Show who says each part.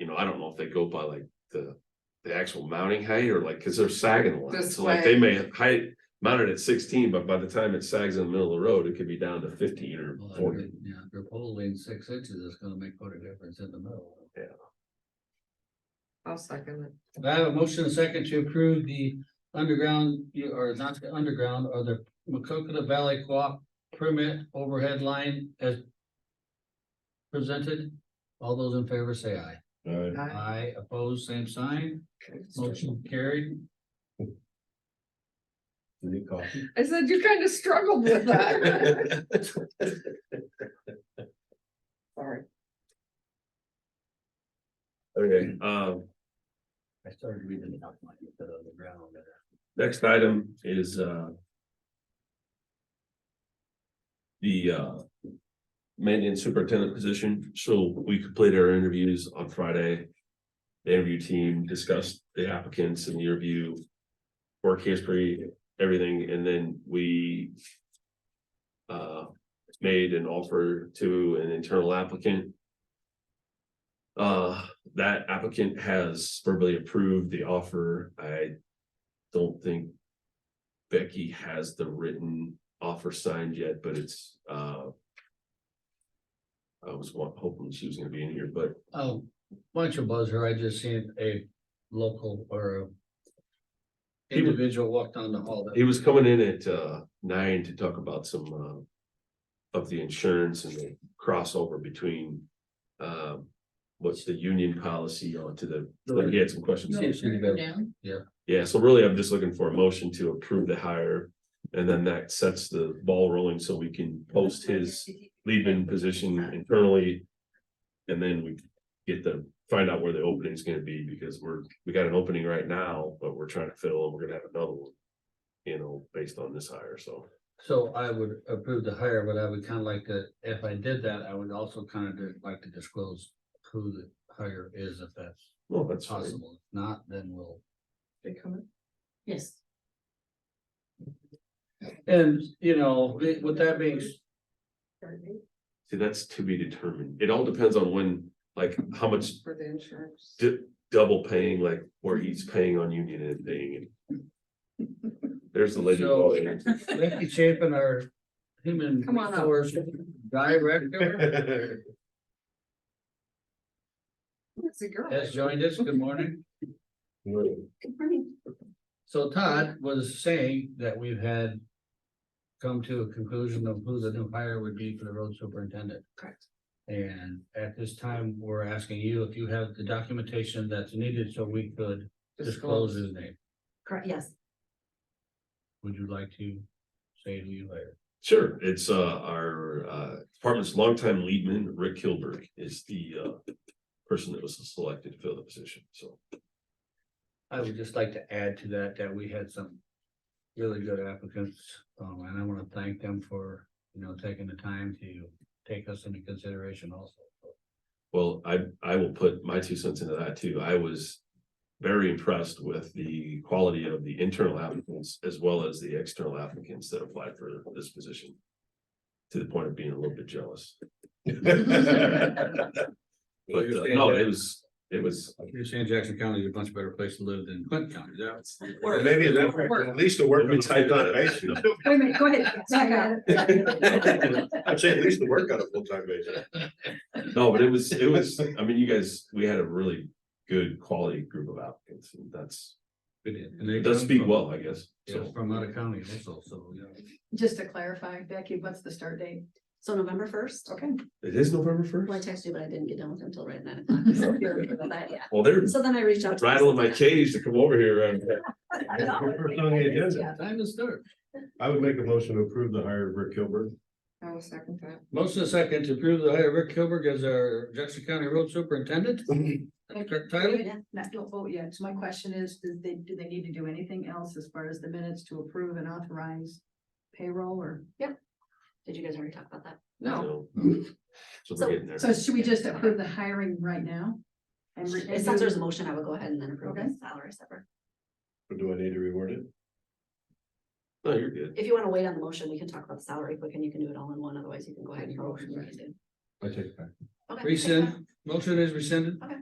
Speaker 1: know, I don't know if they go by like the, the actual mounting height or like, cause they're sagging a lot.
Speaker 2: This
Speaker 1: So like they
Speaker 2: way.
Speaker 1: may height mounted at sixteen, but by the time it sags in the middle of the road, it could be down to fifteen or
Speaker 3: Well, I
Speaker 1: forty.
Speaker 3: mean, Yeah, if you're pulling six inches, it's gonna make quite a difference in the middle.
Speaker 2: I'll second it.
Speaker 3: I have a motion and a second to approve the underground, or not the underground, or the McCoqueta Valley Co-op permit overhead line as presented. All those in favor say aye.
Speaker 2: Aye.
Speaker 3: Aye, opposed, same sign. Motion carried.
Speaker 2: I said you kind of struggled with that. Sorry.
Speaker 1: Okay, um,
Speaker 3: I started reading the document you put on the ground.
Speaker 1: next item is, uh. The, uh. Maintenance superintendent position, so we completed our interviews on Friday. The interview team discussed the applicants and the interview. Work history, everything, and then we. Uh, made an offer to an internal applicant. Uh, that applicant has verbally approved the offer. I don't think Becky has the written offer signed yet, but it's, uh, I was wa- hoping she was gonna be in here, but
Speaker 3: Oh, bunch of buzzer, I just seen a local or a
Speaker 1: He was-
Speaker 3: individual walk down the hall. that-
Speaker 1: he was coming in at, uh, nine to talk about some, um, of the insurance and the crossover between, um, what's the union policy on to the, like, he had some questions.
Speaker 3: Seems to be the-
Speaker 1: Yeah, so really, I'm just looking for a motion to approve the hire, and then that sets the ball rolling so we can post his lead-in position internally. And then we get to find out where the opening is gonna be, because we're, we got an opening right now, but we're trying to fill, and we're gonna have another one. You know, based on this hire, so,
Speaker 3: So I would approve the hire, but I would kind of like to, if I did that, I would also kind of like to disclose who the hire is, if that's
Speaker 1: well, that's fine.
Speaker 3: possible. If Not, then we'll.
Speaker 4: Yes.
Speaker 3: And, you know, wi- with that being, s-
Speaker 1: See, that's to be determined, it all depends on when, like, how much
Speaker 2: For the insurance.
Speaker 1: du- double paying, like where he's paying on union and paying. and- There's the legend. of all ages.
Speaker 3: Becky Chapin, our human
Speaker 2: Come on up.
Speaker 3: resource director,
Speaker 2: It's a girl.
Speaker 3: has joined us. Good morning. So Todd was saying that we've had come to a conclusion of who the new hire would be for the road superintendent.
Speaker 2: Correct.
Speaker 3: And at this time, we're asking you if you have the documentation that's needed so we could disclose his name.
Speaker 4: Correct, yes.
Speaker 3: Would you like to say who you hired?
Speaker 1: Sure, it's uh our uh department's longtime leadman, Rick Kilberg is the uh person that was selected to fill the position, so.
Speaker 3: I would just like to add to that, that we had some really good applicants, um, and I want to thank them for, you know, taking the time to take us into consideration also.
Speaker 1: Well, I, I will put my two cents into that too. I was very impressed with the quality of the internal applicants as well as the external applicants that applied for this position. To the point of being a little bit jealous. But uh, no, it was, it was,
Speaker 3: You're saying Jackson County is a much better place to live than Clinton County, that's.
Speaker 5: Maybe that- at least the work.
Speaker 1: Let me type that.
Speaker 4: Wait a minute, go ahead. back up.
Speaker 5: I'd say at least the work on a full-time basis.
Speaker 1: no, but it was, it was, I mean, you guys, we had a really good quality group of applicants and that's, it does speak well, I guess.
Speaker 3: Yeah,
Speaker 1: So,
Speaker 3: from out of county also, so, yeah.
Speaker 4: Just to clarify, Becky, what's the start date? So November first. Okay.
Speaker 1: it is November first?
Speaker 4: Well, I texted you, but I didn't get done with him until right at nine o'clock. So you're right about that, yeah.
Speaker 1: Well, they're
Speaker 4: So then I reached out. to
Speaker 1: rattling my cage to come over here and
Speaker 4: Yeah.
Speaker 3: Time to start.
Speaker 5: I would make a motion to approve the hire of Rick Kilburn.
Speaker 2: I will second that.
Speaker 3: Motion second to approve the hire of Rick Kilberg as our Jackson County Road Superintendent. Correct title?
Speaker 4: Matt, don't vote yet. So oh, my question is, do they, do they need to do anything else as far as the minutes to approve and authorize payroll or? Yep. Did you guys already talk about that?
Speaker 2: No,
Speaker 1: So
Speaker 4: So-
Speaker 1: we're getting there.
Speaker 6: So should we just approve the hiring right now? And re- and
Speaker 4: Since
Speaker 6: do-
Speaker 4: there's a motion, I would go ahead and then approve the salary separate.
Speaker 5: Do I need to reward it?
Speaker 1: No, you're good.
Speaker 4: If you want to wait on the motion, we can talk about the salary quick and you can do it all in one. Otherwise, you can go ahead and.
Speaker 6: Motion.
Speaker 5: I take it back.
Speaker 4: Okay.
Speaker 3: Rescind. Motion is rescinded.
Speaker 4: Okay.